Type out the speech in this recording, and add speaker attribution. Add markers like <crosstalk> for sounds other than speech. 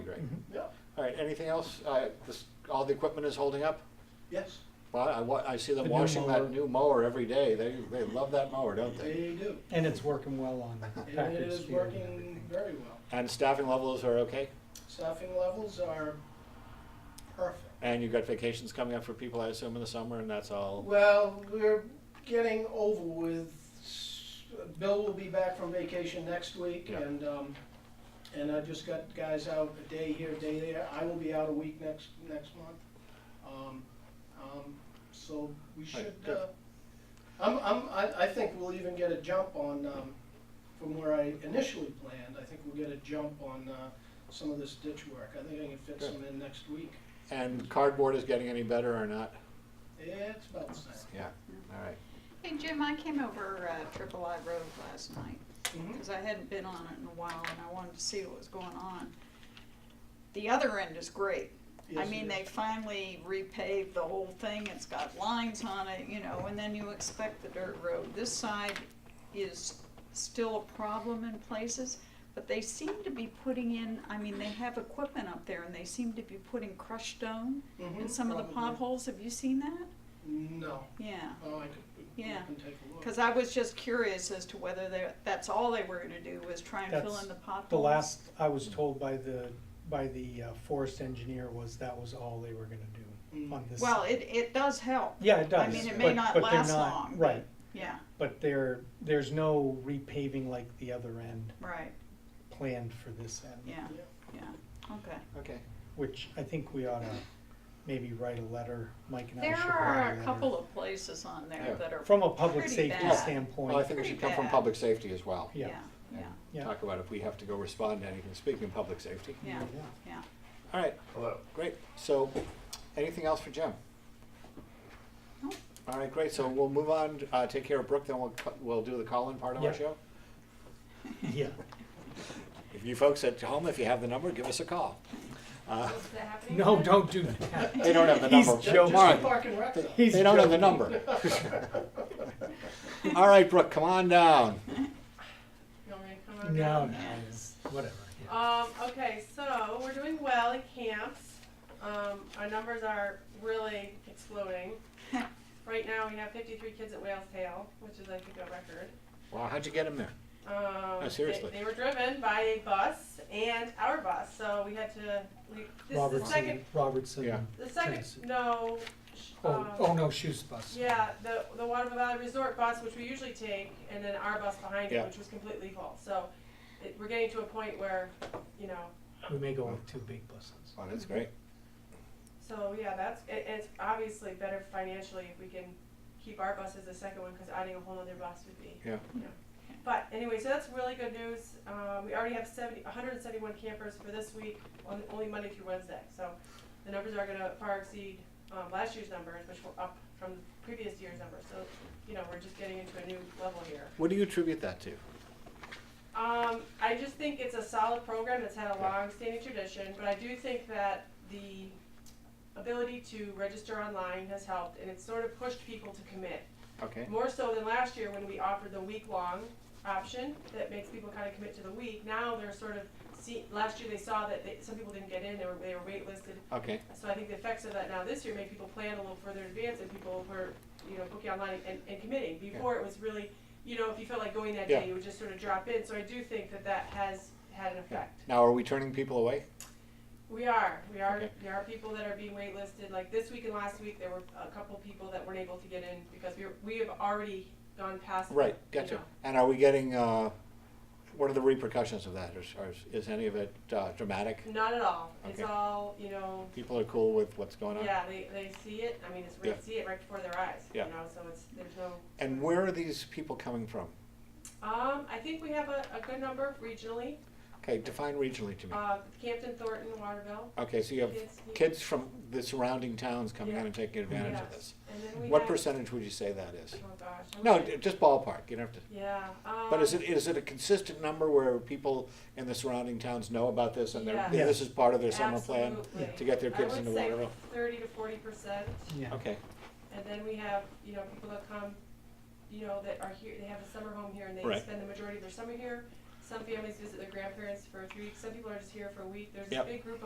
Speaker 1: right?
Speaker 2: Mm-hmm.
Speaker 3: Yeah,
Speaker 1: All right, anything else? Uh, this, all the equipment is holding up?
Speaker 3: yes,
Speaker 1: Well, I, wa- I see them
Speaker 2: The new
Speaker 1: washing
Speaker 2: mower.
Speaker 1: that new mower every day. They, they love that mower, don't they?
Speaker 3: they do.
Speaker 2: And it's working well on the
Speaker 3: It
Speaker 2: Packard's
Speaker 3: is
Speaker 2: field and
Speaker 3: working
Speaker 2: everything.
Speaker 3: very well.
Speaker 1: And staffing levels are okay?
Speaker 3: Staffing levels are perfect.
Speaker 1: And you've got vacations coming up for people, I assume, in the summer, and that's all?
Speaker 3: Well, we're getting over with, Bill will be back from vacation next week,
Speaker 1: Yeah.
Speaker 3: and, um, and I've just got guys out a day here, a day there, I will be out a week next, next month. Um, um, so we should,
Speaker 1: good.
Speaker 3: uh, I'm, I'm, I, I think we'll even get a jump on, um, from where I initially planned, I think we'll get a jump on, uh, some of this ditch work, I think I can fit
Speaker 1: Good.
Speaker 3: some in next week,
Speaker 1: And cardboard is getting any better or not?
Speaker 3: it's about the same.
Speaker 1: Yeah, all right.
Speaker 4: Hey Jim, I came over uh, Triple I Road last night
Speaker 3: Mhm.
Speaker 4: because I hadn't been on it in a while and I wanted to see what was going on. The other end is great. I
Speaker 3: Yes, it
Speaker 4: mean,
Speaker 3: is.
Speaker 4: they finally repaved the whole thing. It's got lines on it, you know, and then you expect the dirt road. This side is still a problem in places, but they seem to be putting in, I mean, they have equipment up there and they seem to be putting crushed stone in
Speaker 3: Mhm,
Speaker 4: some of the
Speaker 3: probably.
Speaker 4: potholes. Have you seen that?
Speaker 3: No.
Speaker 4: Yeah.
Speaker 3: Oh, I could, we
Speaker 4: Yeah.
Speaker 3: can take a look.
Speaker 4: Because I was just curious as to whether they, that's all they were gonna do was try and fill
Speaker 2: That's
Speaker 4: in the potholes.
Speaker 2: The last I was told by the, by the uh, forest engineer was that was all they were gonna
Speaker 3: Mm.
Speaker 2: do on this.
Speaker 4: Well, it, it does help.
Speaker 2: Yeah, it does.
Speaker 4: I mean, it may
Speaker 2: but-
Speaker 4: not
Speaker 2: but they're
Speaker 4: last
Speaker 2: not-
Speaker 4: long, but-
Speaker 2: Right,
Speaker 4: Yeah,
Speaker 2: but there, there's no repaving like the other end
Speaker 4: right,
Speaker 2: planned for this end.
Speaker 4: yeah,
Speaker 3: Yeah.
Speaker 4: yeah, okay.
Speaker 1: Okay.
Speaker 2: Which I think we ought to maybe write a letter, Mike and I should
Speaker 4: There
Speaker 2: write
Speaker 4: are
Speaker 2: a
Speaker 4: a
Speaker 2: letter.
Speaker 4: couple of places on
Speaker 1: Yeah.
Speaker 4: there that are.
Speaker 2: From a public
Speaker 4: pretty
Speaker 2: safety
Speaker 4: bad.
Speaker 2: standpoint.
Speaker 1: Well, I think it
Speaker 4: Pretty
Speaker 1: should come from
Speaker 4: bad.
Speaker 1: public safety as well.
Speaker 2: Yeah.
Speaker 4: Yeah, yeah,
Speaker 2: Yeah.
Speaker 1: Talk about if we have to go respond to anything, speaking of public safety.
Speaker 4: yeah, yeah.
Speaker 1: All right,
Speaker 5: Hello.
Speaker 1: great. So, anything else for Jim?
Speaker 4: No.
Speaker 1: All right, great. So we'll move on, uh, take care of Brooke, then we'll, cu- we'll do the call-in part of our
Speaker 2: Yeah.
Speaker 1: show.
Speaker 4: <laughs>
Speaker 2: Yeah.
Speaker 1: If you folks at home, if you have the number, give us a call. Uh,
Speaker 6: Is that happening?
Speaker 2: No, don't do that.
Speaker 4: <laughs>
Speaker 1: They don't have the
Speaker 2: He's
Speaker 1: number.
Speaker 3: Ju-
Speaker 2: joking.
Speaker 1: Mark,
Speaker 3: Just the parking wreck though.
Speaker 2: He's
Speaker 1: They don't have the
Speaker 2: joking.
Speaker 1: number. <laughs>
Speaker 3: <laughs>
Speaker 1: All right, Brooke, come on down.
Speaker 6: You want me to come over?
Speaker 4: Oh,
Speaker 2: No, no, it's whatever. yeah.
Speaker 6: Um, okay, so we're doing well at camps. Um, our numbers are really exploding. right now we have 53 kids at Whale's Tail, which is I think a record.
Speaker 1: Wow, how'd you get him there?
Speaker 6: Um,
Speaker 1: No, seriously.
Speaker 6: They, they were driven by a bus and our bus, so we had to. We, this is the second.
Speaker 2: Robertson, Robertson.
Speaker 1: Yeah.
Speaker 6: The second.
Speaker 2: Tennessee.
Speaker 6: No. sh-
Speaker 2: Oh,
Speaker 6: um,
Speaker 2: oh no, shoes bus.
Speaker 6: Yeah, the, the Waterville Valley Resort bus, which we usually take, and then our bus behind
Speaker 1: Yeah.
Speaker 6: it, which was completely full. So it, we're getting to a point where, you know,
Speaker 2: We may go with two big buses.
Speaker 1: Oh, that's great.
Speaker 6: so yeah, that's, it, it's obviously better financially if we can keep our bus as the second one, because adding a whole other bus would be,
Speaker 1: Yeah.
Speaker 6: you know. But anyway, so that's really good news. Um, we already have seventy, hundred and seventy-one campers for this week, on, only Monday through Wednesday. So the numbers are gonna far exceed, um, last year's numbers, which were up from previous year's numbers. So, you know, we're just getting into a new level here.
Speaker 1: What do you attribute that to?
Speaker 6: Um, I just think it's a solid program that's had a
Speaker 1: Yeah.
Speaker 6: long-standing tradition, but I do think that the ability to register online has helped, and it's sort of pushed people to commit.
Speaker 1: Okay.
Speaker 6: More so than last year when we offered the week-long option that makes people kind of commit to the week. Now they're sort of, see, last year they saw that they, some people didn't get in, they were, they were waitlisted.
Speaker 1: Okay.
Speaker 6: So I think the effects of that now this year made people plan a little further in advance and people were, you know, booking online and, and committing. Before it was really, you know, if you felt like going that
Speaker 1: Yeah.
Speaker 6: day, you would just sort of drop in. So I do think that that has had an
Speaker 1: Yeah.
Speaker 6: effect.
Speaker 1: Now, are we turning people away?
Speaker 6: We are, we are,
Speaker 1: Okay.
Speaker 6: there are people that are being waitlisted. Like this week and last week, there were a couple people that weren't able to get in because we, were- we have already gone past. the-
Speaker 1: Right,
Speaker 6: you
Speaker 1: gotcha.
Speaker 6: know.
Speaker 1: And are we getting, uh, what are the repercussions of that? Is, are- is any of it uh, dramatic?
Speaker 6: Not at all. It's
Speaker 1: Okay.
Speaker 6: all, you know,
Speaker 1: People are cool with what's going on?
Speaker 6: yeah, they, they see it. I mean, it's,
Speaker 1: Yeah.
Speaker 6: they see it right before their eyes, you
Speaker 1: Yeah.
Speaker 6: know, so it's, there's no.
Speaker 1: And where are these people coming from?
Speaker 6: Um, I think we have a, a good number regionally.
Speaker 1: Okay, define regionally to me.
Speaker 6: Uh, Campton, Thornton, Waterville.
Speaker 1: Okay, so you have
Speaker 6: Kids, yeah.
Speaker 1: kids from the surrounding towns coming in
Speaker 6: Yeah.
Speaker 1: and taking advantage of
Speaker 6: Yeah.
Speaker 1: this.
Speaker 6: And then we
Speaker 1: What
Speaker 6: have-
Speaker 1: percentage would you say that is?
Speaker 6: Oh, gosh. I'm
Speaker 1: No,
Speaker 6: gonna-
Speaker 1: d- just ballpark, you don't have to.
Speaker 6: Yeah.
Speaker 1: But is
Speaker 6: um,
Speaker 1: it, is it a consistent number where people in the surrounding towns know about this and they're,
Speaker 2: Yeah.
Speaker 1: this is part of their summer plan?
Speaker 6: absolutely.
Speaker 1: to get their
Speaker 6: I
Speaker 1: kids
Speaker 6: would
Speaker 1: into
Speaker 6: say
Speaker 1: Waterville?
Speaker 6: Thirty to forty percent.
Speaker 2: Yeah.
Speaker 1: Okay,
Speaker 6: And then we have, you know, people that come, you know, that are here, they have a summer home here and they
Speaker 1: Right.
Speaker 6: spend the majority of their summer here. Some families visit their grandparents for three weeks. Some people are just here for a week. There's
Speaker 1: Yep.
Speaker 6: a big group